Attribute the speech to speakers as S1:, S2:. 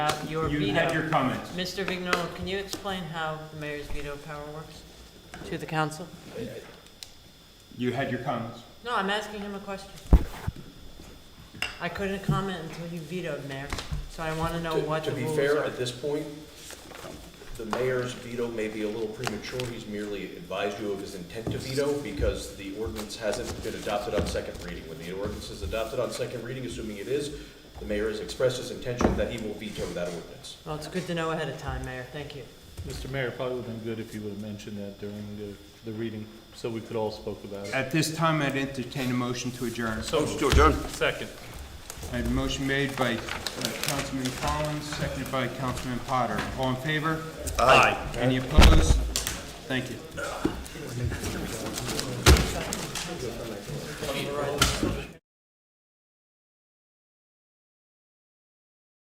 S1: Uh, Your
S2: You had your
S1: veto.
S2: comments.
S1: Mr. Vignola, can you explain how the mayor's veto power works to the council?
S2: You had your comments.
S1: No, I'm asking him a question. I couldn't comment until you vetoed, Mayor, so I want to know
S3: To-
S1: what the
S3: To
S1: rules
S3: be fair,
S1: are.
S3: at this point, the mayor's veto may be a little premature. He's merely advised you of his intent to veto because the ordinance hasn't been adopted on second reading. When the ordinance is adopted on second reading, assuming it is, the mayor has expressed his intention that he will veto that ordinance.
S1: Well, it's good to know ahead of time, Mayor, thank you.
S4: Mr. Mayor, it probably would've been good if you would've mentioned that during the, the reading, so we could all spoke about it.
S2: At this time, I'd entertain a motion to adjourn.
S4: So Second.
S2: I have a motion made by uh, Councilman Collins, seconded by Councilman Potter. All in favor?
S4: Aye.
S2: Any opposed? Thank you.